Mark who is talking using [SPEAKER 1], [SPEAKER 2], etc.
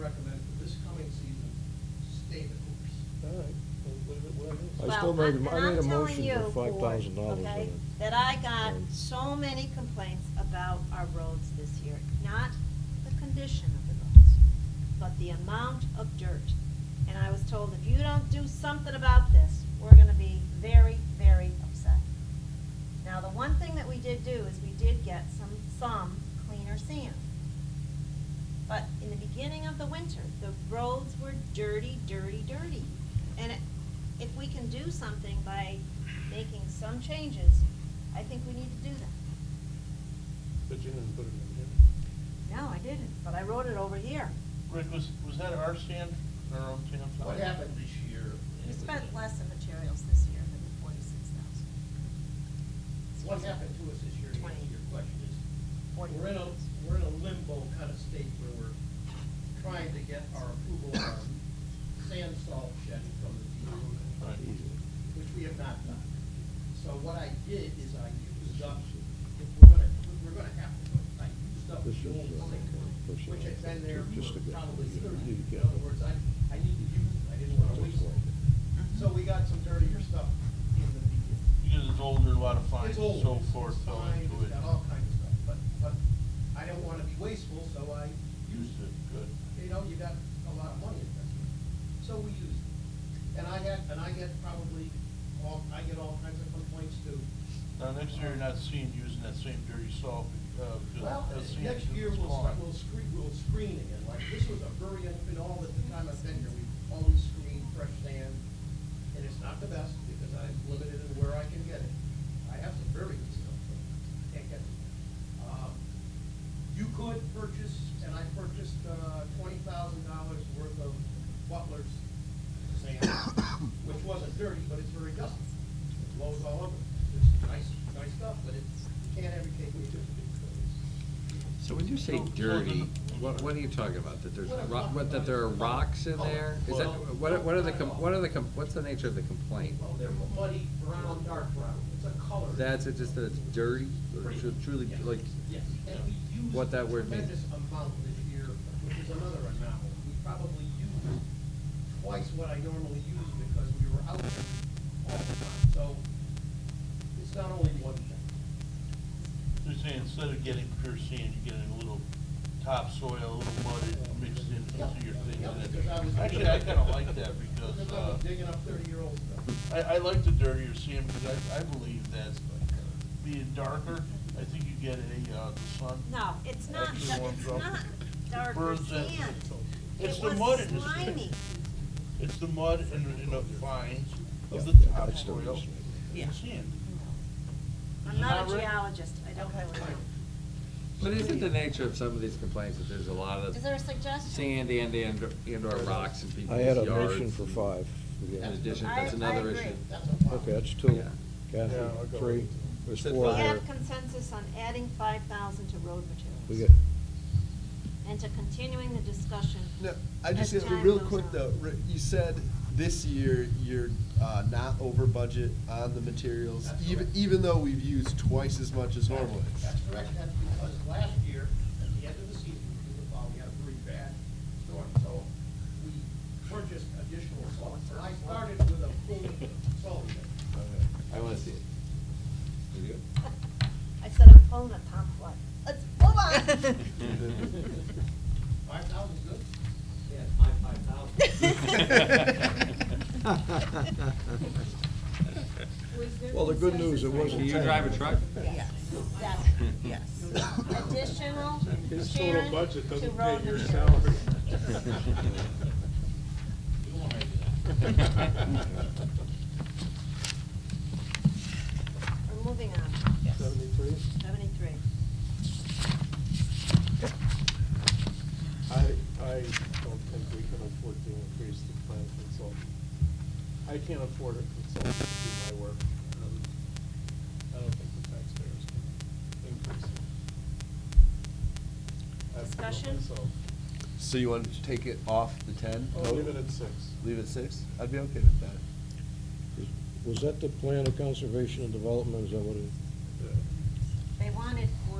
[SPEAKER 1] recommend for this coming season, stay the course.
[SPEAKER 2] All right, we'll leave it where it is.
[SPEAKER 3] Well,
[SPEAKER 4] I still made a-
[SPEAKER 3] I'm-
[SPEAKER 4] I
[SPEAKER 3] and
[SPEAKER 4] made a
[SPEAKER 3] I'm telling
[SPEAKER 4] motion for
[SPEAKER 3] you,
[SPEAKER 4] $5,000
[SPEAKER 3] Ford, okay,
[SPEAKER 4] on it.
[SPEAKER 3] That I got
[SPEAKER 4] And-
[SPEAKER 3] so many complaints about our roads this year, not the condition of the roads, but the amount of dirt. And I was told, if you don't do something about this, we're gonna be very, very upset. Now, the one thing that we did do is we did get some, some cleaner sand. But in the beginning of the winter, the roads were dirty, dirty, dirty. And it- if we can do something by making some changes, I think we need to do that.
[SPEAKER 2] But you didn't put it in here.
[SPEAKER 3] No, I didn't, but I wrote it over here.
[SPEAKER 5] Rick, was, was that our sand, or our own sand?
[SPEAKER 1] What happened this year?
[SPEAKER 3] We spent less in materials this year than the forty-six thousand.
[SPEAKER 1] What happened to us this year, to answer your question is,
[SPEAKER 3] Forty.
[SPEAKER 1] we're in a, we're in a limbo kind of state where we're trying to get our approval of our sand salt shed from the DEP, which we have not done. So what I did is I used up, if we're gonna, if we're gonna have to, I used up
[SPEAKER 4] This
[SPEAKER 1] the
[SPEAKER 4] is,
[SPEAKER 1] old
[SPEAKER 4] uh,
[SPEAKER 1] sink,
[SPEAKER 4] this
[SPEAKER 1] which
[SPEAKER 4] is
[SPEAKER 1] had been there
[SPEAKER 4] just
[SPEAKER 1] for
[SPEAKER 4] to get-
[SPEAKER 1] probably
[SPEAKER 4] you
[SPEAKER 1] thirty.
[SPEAKER 4] need to
[SPEAKER 1] In
[SPEAKER 4] get-
[SPEAKER 1] other words, I, I need to use it, I didn't wanna waste it. So we got some dirtier stuff in the beginning.
[SPEAKER 5] Because it's older, a lot of fines,
[SPEAKER 1] It's
[SPEAKER 5] and
[SPEAKER 1] old.
[SPEAKER 5] so forth,
[SPEAKER 1] It's
[SPEAKER 5] fell
[SPEAKER 1] fine,
[SPEAKER 5] into
[SPEAKER 1] it's
[SPEAKER 5] it.
[SPEAKER 1] got all kinds of stuff, but, but I don't wanna be wasteful, so I used
[SPEAKER 5] Used it, good.
[SPEAKER 1] it. You know, you got a lot of money invested, so we used it. And I had, and I get probably, all, I get all kinds of complaints too.
[SPEAKER 5] Now, next year, you're not seeing, using that same dirty salt, uh,
[SPEAKER 1] Well,
[SPEAKER 5] because. that's sand
[SPEAKER 1] next
[SPEAKER 5] that's
[SPEAKER 1] year we'll,
[SPEAKER 5] gone.
[SPEAKER 1] start- we'll screen, we'll screen again, like this was a very, in all the time I've been here, we've always screened fresh sand. And it's not the best because I'm limited in where I can get it. I have some very good stuff, but I can't get it. Um, You could purchase, and I purchased, uh, twenty thousand dollars worth of Butler's sand, which wasn't dirty, but it's very dusty. It blows all over. It's nice, nice stuff, but it's, you can't every cake we do.
[SPEAKER 6] So when you say
[SPEAKER 5] No, well,
[SPEAKER 6] dirty,
[SPEAKER 5] then-
[SPEAKER 6] what, what are you talking about? That there's,
[SPEAKER 1] What I'm
[SPEAKER 6] ro-
[SPEAKER 1] talking
[SPEAKER 6] what, that there are
[SPEAKER 1] about-
[SPEAKER 6] rocks in there? Is that,
[SPEAKER 1] Oh, Well,
[SPEAKER 6] what, are- what are the,
[SPEAKER 1] not at all.
[SPEAKER 6] com- what are the, com- what's the nature of the complaint?
[SPEAKER 1] Well, they're muddy, brown, dark brown. It's a color.
[SPEAKER 6] That's, it just that it's dirty, or
[SPEAKER 1] Pretty.
[SPEAKER 6] tru- truly,
[SPEAKER 1] Yes.
[SPEAKER 6] like,
[SPEAKER 1] Yes, and we used.
[SPEAKER 6] what that word means.
[SPEAKER 1] Tremendous amount this year, which is another anomaly. We probably used twice what I normally use because we were out there all the time. So it's not only one thing.
[SPEAKER 5] They're saying instead of getting pure sand, you're getting a little topsoil, a little mud mixed in into your thing.
[SPEAKER 1] Yeah,
[SPEAKER 5] and it-
[SPEAKER 1] because I was-
[SPEAKER 5] Actually, I kinda like that because,
[SPEAKER 1] Because I was
[SPEAKER 5] uh,
[SPEAKER 1] digging up thirty-year-old stuff.
[SPEAKER 5] I, I like the dirtier sand because I, I believe that being darker, I think you get a, uh, the sun.
[SPEAKER 3] No, it's not,
[SPEAKER 5] Actually
[SPEAKER 3] da-
[SPEAKER 5] warms
[SPEAKER 3] it's
[SPEAKER 5] up.
[SPEAKER 3] not darker
[SPEAKER 5] Burns it.
[SPEAKER 3] sand.
[SPEAKER 5] It's
[SPEAKER 3] It
[SPEAKER 5] the mud
[SPEAKER 3] was
[SPEAKER 5] in the sand.
[SPEAKER 3] slimy.
[SPEAKER 5] It's the mud and, and the fines of the
[SPEAKER 4] Yeah, that's the
[SPEAKER 5] topsoil
[SPEAKER 4] reason.
[SPEAKER 5] and sand.
[SPEAKER 3] I'm not
[SPEAKER 5] Not
[SPEAKER 3] a
[SPEAKER 5] really.
[SPEAKER 3] geologist, I don't really know.
[SPEAKER 6] but isn't the nature of some of these complaints that there's a lot of
[SPEAKER 3] Is there a suggestion?
[SPEAKER 6] sand and, and, and or rocks in
[SPEAKER 4] I
[SPEAKER 6] people's
[SPEAKER 4] had
[SPEAKER 6] yards?
[SPEAKER 4] a motion for five.
[SPEAKER 6] In
[SPEAKER 4] Yeah.
[SPEAKER 6] addition,
[SPEAKER 3] I-
[SPEAKER 6] that's
[SPEAKER 3] I
[SPEAKER 6] another
[SPEAKER 3] agree.
[SPEAKER 6] issue.
[SPEAKER 1] That's a problem.
[SPEAKER 4] Okay, that's two.
[SPEAKER 6] Yeah.
[SPEAKER 2] Yeah, I'll
[SPEAKER 4] Kathy,
[SPEAKER 2] go
[SPEAKER 4] three.
[SPEAKER 2] with it.
[SPEAKER 4] There's
[SPEAKER 6] Said
[SPEAKER 4] four
[SPEAKER 3] We
[SPEAKER 4] here.
[SPEAKER 3] have
[SPEAKER 2] uh,
[SPEAKER 3] consensus on adding five thousand to road
[SPEAKER 4] We
[SPEAKER 3] materials
[SPEAKER 4] get,
[SPEAKER 3] and to continuing the discussion.
[SPEAKER 7] No, I just,
[SPEAKER 3] as time
[SPEAKER 7] real
[SPEAKER 3] goes
[SPEAKER 7] quick
[SPEAKER 3] on.
[SPEAKER 7] though, Rick, you said this year you're uh, not over budget on the materials,
[SPEAKER 1] That's
[SPEAKER 7] even,
[SPEAKER 1] correct.
[SPEAKER 7] even though we've used twice as much as normal.
[SPEAKER 1] That's correct, that's because last year, at the end of the season, we were probably had a pretty bad storm, so we purchased additional salt. And I started with a full salt shed.
[SPEAKER 6] I wanna see it. You good?
[SPEAKER 3] I said I'm pulling a top one. Let's move on.
[SPEAKER 1] Five thousand good? Yeah, five thousand.
[SPEAKER 4] well, the good news, it wasn't
[SPEAKER 6] Can you
[SPEAKER 4] ten.
[SPEAKER 6] drive a truck?
[SPEAKER 3] Yes, yes, yes. Additional,
[SPEAKER 2] His total
[SPEAKER 3] Sharon,
[SPEAKER 2] budget
[SPEAKER 3] to
[SPEAKER 2] doesn't
[SPEAKER 3] road
[SPEAKER 2] pay your
[SPEAKER 3] materials.
[SPEAKER 2] salary.
[SPEAKER 3] We're moving on.
[SPEAKER 2] Seventy-three?
[SPEAKER 3] Seventy-three.
[SPEAKER 2] I, I don't think we can afford to increase the plan consultant. I can't afford a consultant to do my work. um, I don't think the taxpayers can increase it. I have to do it
[SPEAKER 3] Discussion?
[SPEAKER 2] myself.
[SPEAKER 7] So you want to take it off the ten?
[SPEAKER 2] I'll leave it at six.
[SPEAKER 7] Leave it at six? I'd be okay with that.
[SPEAKER 4] Was that the plan of conservation and development, is that what it?
[SPEAKER 2] Yeah.
[SPEAKER 3] They wanted